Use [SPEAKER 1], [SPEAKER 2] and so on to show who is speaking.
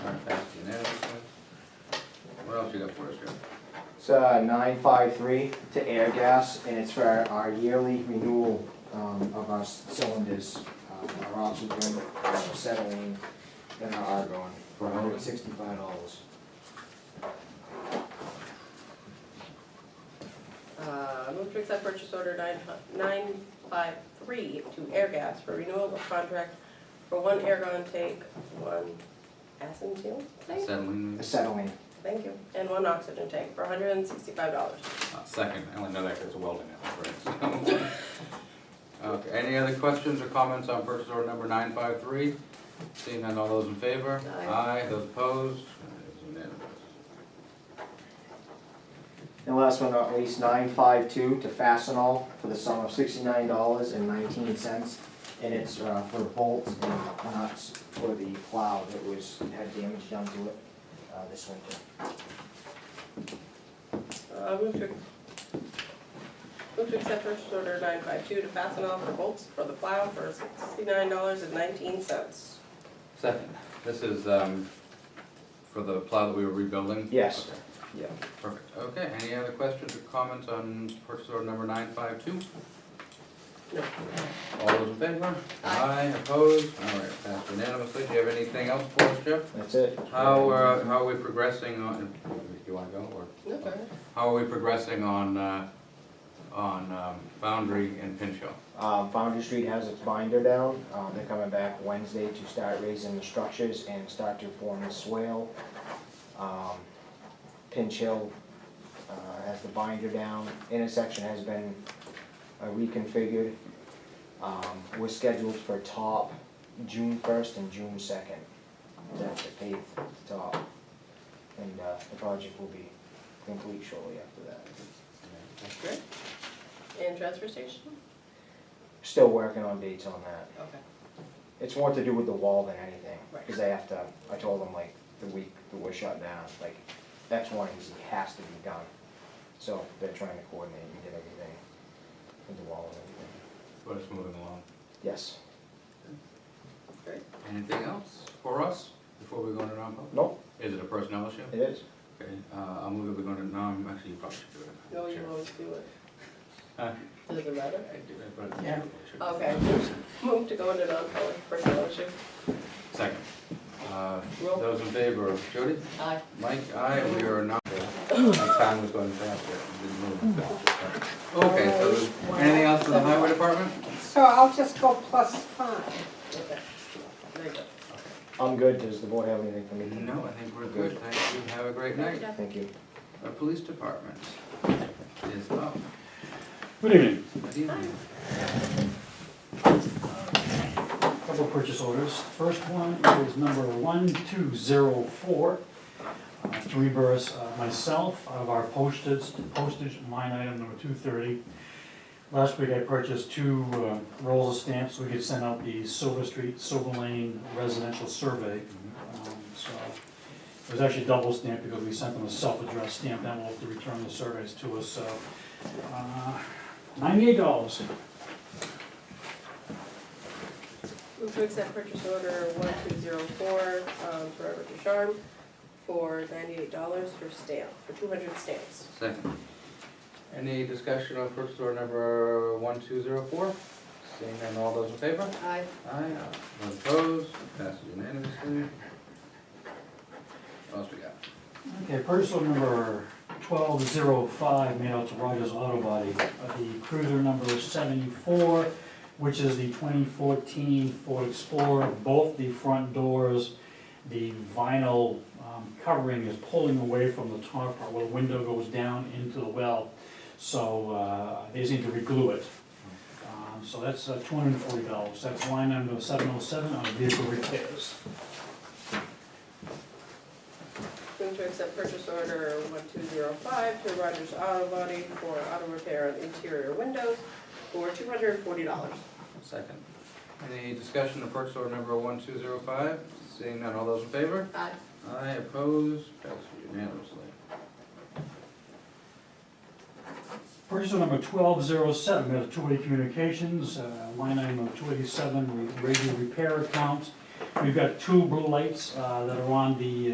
[SPEAKER 1] What else you got for us, Jeff?
[SPEAKER 2] It's uh, nine five three to air gas, and it's for our yearly renewal um, of our s- cylinders, um, our oxygen, our uh, acetylene, and our argon, for hundred and sixty-five dollars.
[SPEAKER 3] Uh, move to accept purchase order nine, nine five three to Airgas for renewal of contract for one airgun tank, one acetyl tank,
[SPEAKER 1] Settling,
[SPEAKER 2] Acetylene,
[SPEAKER 3] thank you, and one oxygen tank for hundred and sixty-five dollars.
[SPEAKER 1] uh, second, I only know that because welding it, right? so. Okay, any other questions or comments on purchase order number nine five three? Seeing none, all those in favor?
[SPEAKER 3] Aye.
[SPEAKER 1] those opposed? It is unanimous.
[SPEAKER 2] and last but not least, nine five two to Fastenal for the sum of sixty-nine dollars and nineteen cents, and it's uh, for bolts and nuts for the plow that was, had damage done to it uh, this winter.
[SPEAKER 3] Uh, move to, move to accept purchase order nine five two to Fastenal for bolts for the plow for sixty-nine dollars and nineteen cents.
[SPEAKER 1] Second, this is, um, for the plow that we were rebuilding?
[SPEAKER 2] Yes.
[SPEAKER 1] Okay,
[SPEAKER 2] Yeah.
[SPEAKER 1] Perfect, okay, any other questions or comments on purchase order number nine five two?
[SPEAKER 3] No.
[SPEAKER 1] All those in favor?
[SPEAKER 3] Aye.
[SPEAKER 1] opposed? All right, passed unanimously, do you have anything else for us, Jeff?
[SPEAKER 2] That's it.
[SPEAKER 1] How, uh, how are we progressing on, you wanna go, or,
[SPEAKER 3] No, go ahead.
[SPEAKER 1] how are we progressing on, uh, on, um, Foundry and Pinchot?
[SPEAKER 2] Um, Foundry Street has its binder down, um, they're coming back Wednesday to start raising the structures and start to form the swale. Um, Pinch Hill, uh, has the binder down, intersection has been uh, reconfigured. Um, we're scheduled for top June first and June second, that's the paved top. And, uh, the project will be complete shortly after that.
[SPEAKER 3] Great. And transfer station?
[SPEAKER 2] Still working on dates on that.
[SPEAKER 3] Okay.
[SPEAKER 2] It's more to do with the wall than anything,
[SPEAKER 3] Right.
[SPEAKER 2] because they have to, I told them like the week that we're shut down, like X, Y, and Z has to be done. So they're trying to coordinate and get everything with the wall and everything.
[SPEAKER 1] But it's moving along.
[SPEAKER 2] Yes,
[SPEAKER 3] Great.
[SPEAKER 1] Anything else for us before we go into non-public?
[SPEAKER 2] nope,
[SPEAKER 1] Is it a personnel issue?
[SPEAKER 2] it is.
[SPEAKER 1] Okay, uh, I'll move it, we're going to, no, I'm actually, you probably should do it.
[SPEAKER 3] No, you
[SPEAKER 1] Sure.
[SPEAKER 3] always do it.
[SPEAKER 1] Huh?
[SPEAKER 3] Does it matter?
[SPEAKER 1] I do it, but I
[SPEAKER 3] Yeah.
[SPEAKER 1] should-
[SPEAKER 3] Okay. Move to go into non-public personnel issue.
[SPEAKER 1] Second. Uh,
[SPEAKER 3] Roll.
[SPEAKER 1] Those in favor, Jody?
[SPEAKER 3] Aye.
[SPEAKER 1] Mike, aye, we are not, my time was going faster, it didn't move faster. Okay, so, is- anything else in the highway department?
[SPEAKER 4] So I'll just go plus five.
[SPEAKER 3] Okay. There you go.
[SPEAKER 2] I'm good, does the board have anything for me?
[SPEAKER 1] No, I think we're good, thank you, have a great night.
[SPEAKER 2] Thank you.
[SPEAKER 1] Our police department is up.
[SPEAKER 5] Good evening.
[SPEAKER 1] Good evening.
[SPEAKER 5] Couple of purchase orders. First one is number 1204, uh, to reimburse uh, myself out of our postage, postage line item number 230. Last week I purchased two uh, rolls of stamps so we could send out the Silver Street, Silver Lane residential survey. Um, So it was actually double stamped because we sent them a self-addressed stamped envelope to return the surveys to us, so uh, $98.
[SPEAKER 3] Move to accept purchase order one two zero four, um, Forever Ducharme for ninety-eight dollars for stamp, for two hundred stamps.
[SPEAKER 1] Second. Any discussion on purchase order number one two zero four? Seeing none, all those in favor?
[SPEAKER 3] Aye.
[SPEAKER 1] Aye, those opposed, passes unanimously. What else we got?
[SPEAKER 5] Okay, parcel number twelve zero five made out to Rogers Auto Body, uh, the cruiser number seventy-four, which is the twenty fourteen Ford Explorer, both the front doors, the vinyl um, covering is pulling away from the top part where the window goes down into the well. So uh, they just need to reglue it. Um, So that's two hundred and forty dollars, that's line number seven oh seven on vehicle repairs.
[SPEAKER 3] Move to accept purchase order one two zero five to Rogers Auto Body for auto repair of interior windows for two hundred and forty dollars.
[SPEAKER 1] Second. Any discussion of purchase order number one two zero five? Seeing none, all those in favor?
[SPEAKER 3] Aye.
[SPEAKER 1] Aye, opposed, passes unanimously.
[SPEAKER 5] Purchase order number twelve zero seven, we have two-way communications, uh, line item of two eighty-seven, radio repair account. We've got two blue lights uh, that are on the